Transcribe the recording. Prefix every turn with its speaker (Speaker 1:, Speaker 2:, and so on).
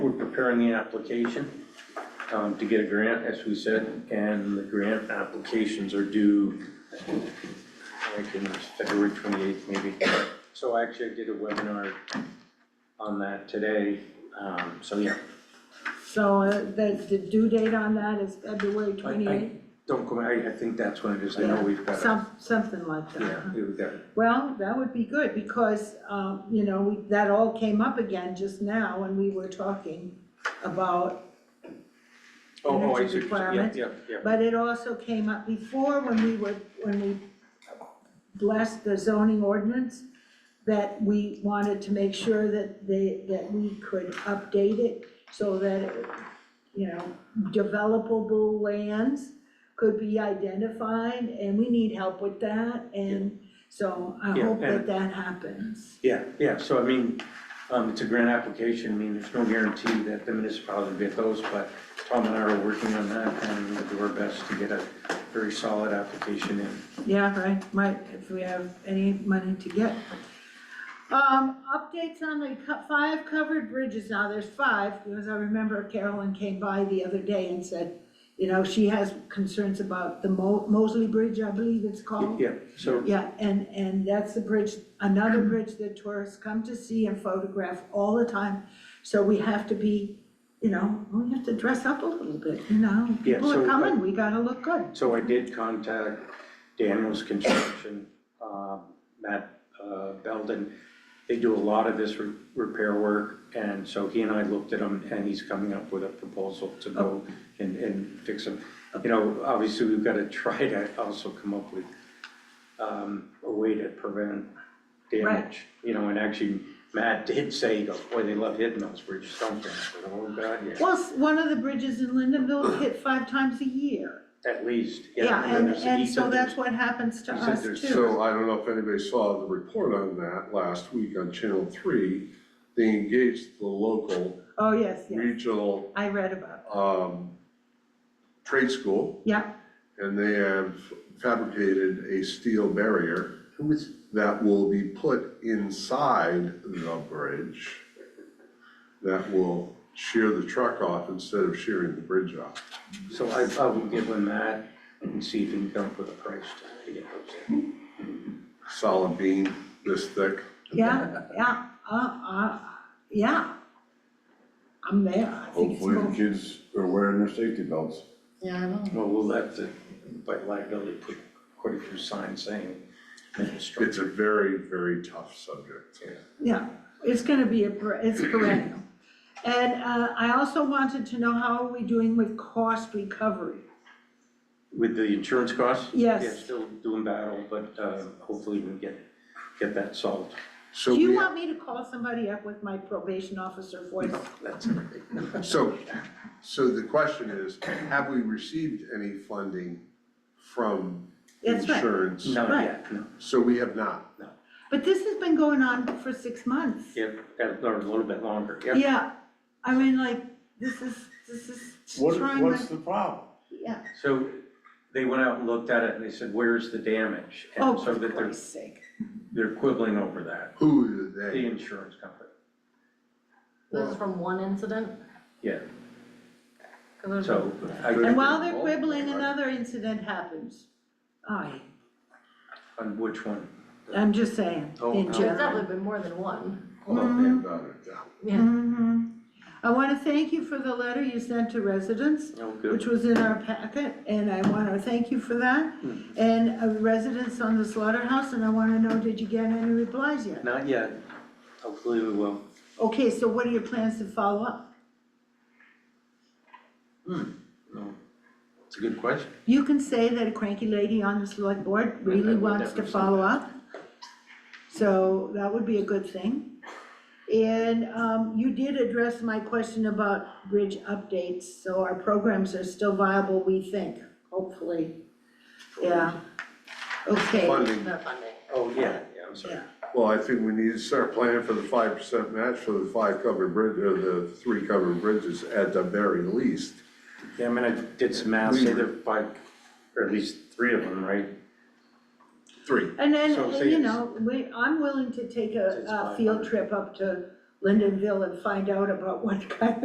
Speaker 1: occur in the application um, to get a grant, as we said, and the grant applications are due, I think it's February twenty-eighth maybe. So actually I did a webinar on that today, um, so yeah,
Speaker 2: So uh, the, the due date on that is February
Speaker 1: I- I-
Speaker 2: twenty-eighth,
Speaker 1: don't go, I, I think that's when it is, I know we've got, a-
Speaker 2: some, something like that.
Speaker 1: yeah, we've got,
Speaker 2: Well, that would be good, because, um, you know, we- that all came up again just now when we were talking about,
Speaker 1: oh, oh, I see,
Speaker 2: Energy
Speaker 1: yeah,
Speaker 2: requirements.
Speaker 1: yeah, yeah.
Speaker 2: but it also came up before when we were, when we blessed the zoning ordinance, that we wanted to make sure that they, that we could update it so that, it, you know, developable lands could be identified, and we need help with that, and so I
Speaker 1: Yeah,
Speaker 2: hope that
Speaker 1: and-
Speaker 2: that happens.
Speaker 1: Yeah, yeah, so I mean, um, it's a grant application, I mean, there's no guarantee that the municipality will get those, but Tom and I are working on that and we'll do our best to get a very solid application in.
Speaker 2: Yeah, right, might, if we have any money to get. Um, updates on the co- five covered bridges, now there's five, because I remember Carolyn came by the other day and said, you know, she has concerns about the Mo- Mosley Bridge, I believe it's called.
Speaker 1: Yeah, so,
Speaker 2: Yeah, and, and that's the bridge, another bridge that tourists come to see and photograph all the time. So we have to be, you know, we have to dress up a little bit, you know?
Speaker 1: Yeah,
Speaker 2: People
Speaker 1: so,
Speaker 2: are
Speaker 1: uh,
Speaker 2: coming, we gotta look good.
Speaker 1: so I did contact Daniels Construction, uh, Matt uh, Belden. They do a lot of this re- repair work, and so he and I looked at them, and he's coming up with a proposal to go
Speaker 2: Oh.
Speaker 1: and, and fix them. You know, obviously, we've got to try to also come up with um, a way to prevent damage. You know, and actually, Matt did say, he goes, boy, they love hitting those bridges, don't they? I said, Oh, God, yeah,
Speaker 2: Well, s- one of the bridges in Lindenville hit five times a year.
Speaker 1: at least.
Speaker 2: Yeah, and,
Speaker 1: there's- he
Speaker 2: and
Speaker 1: said
Speaker 2: so
Speaker 1: there's-
Speaker 2: that's what happens to
Speaker 1: he said
Speaker 2: us
Speaker 1: there's
Speaker 2: too.
Speaker 3: So I don't know if anybody saw the report on that last week on Channel Three. They engaged the local
Speaker 2: Oh, yes, yes,
Speaker 3: regional
Speaker 2: I read about
Speaker 3: um trade school
Speaker 2: it. Yeah,
Speaker 3: and they have fabricated a steel barrier
Speaker 1: Who was,
Speaker 3: that will be put inside the bridge that will shear the truck off instead of shearing the bridge off.
Speaker 1: So I, I will give him that and see if he can come up with a price to- to get those in.
Speaker 3: Solid beam this thick.
Speaker 2: yeah, yeah, uh, uh, yeah. I'm there, I think it's
Speaker 4: Hopefully the
Speaker 2: cool.
Speaker 4: kids are wearing their safety belts.
Speaker 2: Yeah, I know.
Speaker 1: Well, we'll have to, by liability, put quite a few signs saying.
Speaker 3: It's a very, very tough subject.
Speaker 2: Yeah, it's gonna be a, per- it's perennial. And, uh, I also wanted to know how are we doing with cost recovery?
Speaker 1: With the insurance costs?
Speaker 2: Yes.
Speaker 1: Yeah, still doing battle, but uh, hopefully we get, get that solved.
Speaker 3: So
Speaker 2: Do you
Speaker 3: we
Speaker 2: want me to call somebody up with my probation officer voice?
Speaker 1: That's everything.
Speaker 3: So, so the question is, have we received any funding from
Speaker 2: That's right.
Speaker 3: insurance?
Speaker 1: Not yet, no.
Speaker 3: So we have not.
Speaker 2: But this has been going on for six months.
Speaker 1: Yeah, that- or a little bit longer, yeah.
Speaker 2: Yeah, I mean, like, this is, this is
Speaker 4: What,
Speaker 2: trying
Speaker 4: what's
Speaker 2: to,
Speaker 4: the problem?
Speaker 2: yeah,
Speaker 1: So they went out and looked at it and they said, where's the damage?
Speaker 2: oh,
Speaker 1: And so
Speaker 2: for
Speaker 1: that they're,
Speaker 2: Christ's sake.
Speaker 1: they're quibbling over that,
Speaker 3: Who are
Speaker 1: the
Speaker 3: they?
Speaker 1: insurance company.
Speaker 5: This is from one incident?
Speaker 1: Yeah,
Speaker 5: 'Cause there's-
Speaker 1: so. I-
Speaker 2: And while they're quibbling, another incident happens. I,
Speaker 1: On which one?
Speaker 2: I'm just saying,
Speaker 1: Oh,
Speaker 2: in
Speaker 1: no.
Speaker 5: There's
Speaker 2: general.
Speaker 5: definitely been more than one.
Speaker 3: Oh,
Speaker 2: Mm-hmm.
Speaker 3: man, daughter, yeah.
Speaker 5: Yeah,
Speaker 2: Mhm. I wanna thank you for the letter you sent to residents,
Speaker 1: Oh, good.
Speaker 2: which was in our packet, and I wanna thank you for that.
Speaker 1: Mm-hmm.
Speaker 2: And uh, residents on the slaughterhouse, and I wanna know, did you get any replies yet?
Speaker 1: Not yet. Hopefully we will.
Speaker 2: Okay, so what are your plans to follow up?
Speaker 1: No. It's a good question.
Speaker 2: You can say that a cranky lady on the select board
Speaker 1: I
Speaker 2: really
Speaker 1: would
Speaker 2: wants to
Speaker 1: never say
Speaker 2: follow
Speaker 1: that.
Speaker 2: up. So that would be a good thing. And um, you did address my question about bridge updates, so our programs are still viable, we think, hopefully. Yeah. Okay,
Speaker 3: Funding,
Speaker 5: that funding.
Speaker 1: Oh, yeah, yeah, I'm sorry.
Speaker 2: Yeah.
Speaker 3: well, I think we need to start planning for the five percent match for the five covered bridge, or the three covered bridges at the very least.
Speaker 1: Yeah, I mean, I did some math, say there are five, or at least three of them, right?
Speaker 3: Three.
Speaker 2: and then,
Speaker 1: So say
Speaker 2: you
Speaker 1: it's-
Speaker 2: know, we, I'm willing to take a,
Speaker 1: It's
Speaker 2: a
Speaker 1: 500.
Speaker 2: field trip up to Lindenville and find out about what kind